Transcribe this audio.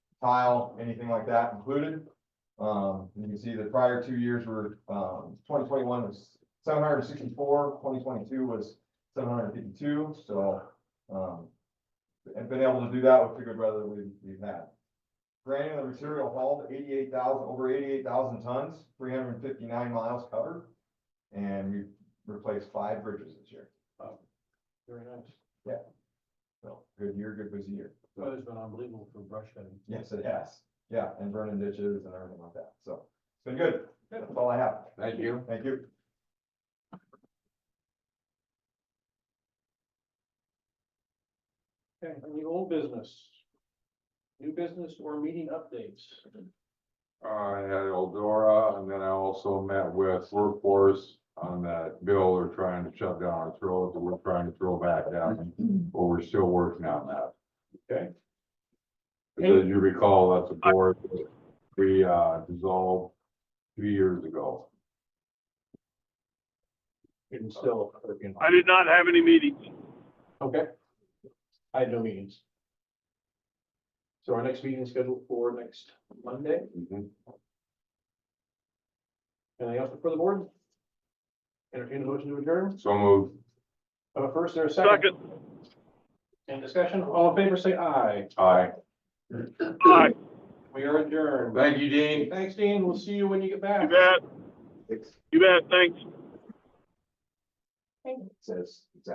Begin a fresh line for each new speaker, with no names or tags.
tile, anything like that included. Um, you can see the prior two years were, um, twenty twenty-one was seven hundred and sixty-four, twenty twenty-two was seven hundred and fifty-two, so, um, and been able to do that with the good weather we've, we've had. Granular material hauled eighty-eight thousand, over eighty-eight thousand tons, three hundred and fifty-nine miles covered. And we've replaced five bridges this year,
Very nice.
so good year, good busy year.
Weather's been unbelievable for brush cutting.
Yes, it has. Yeah, and burning ditches and everything like that. So it's been good. That's all I have.
Thank you.
Thank you.
Okay, any old business? New business or meeting updates?
I had Eldora and then I also met with workforce on that bill. They're trying to shut down our throat, we're trying to throw back down. But we're still working on that.
Okay.
Because you recall, that's a board that we uh, dissolved two years ago.
And still working.
I did not have any meetings.
Okay. I had no meetings. So our next meeting is scheduled for next Monday.
Mm-hmm.
Anything else for the board? Entertain a motion to adjourn.
So moved.
Uh, first or a second?
Second,
Any discussion? All in favor, say aye.
Aye.
aye,
We are adjourned.
Thank you, Dean.
Thanks, Dean. We'll see you when you get
you
back.
bet, you bet, thanks.
Says.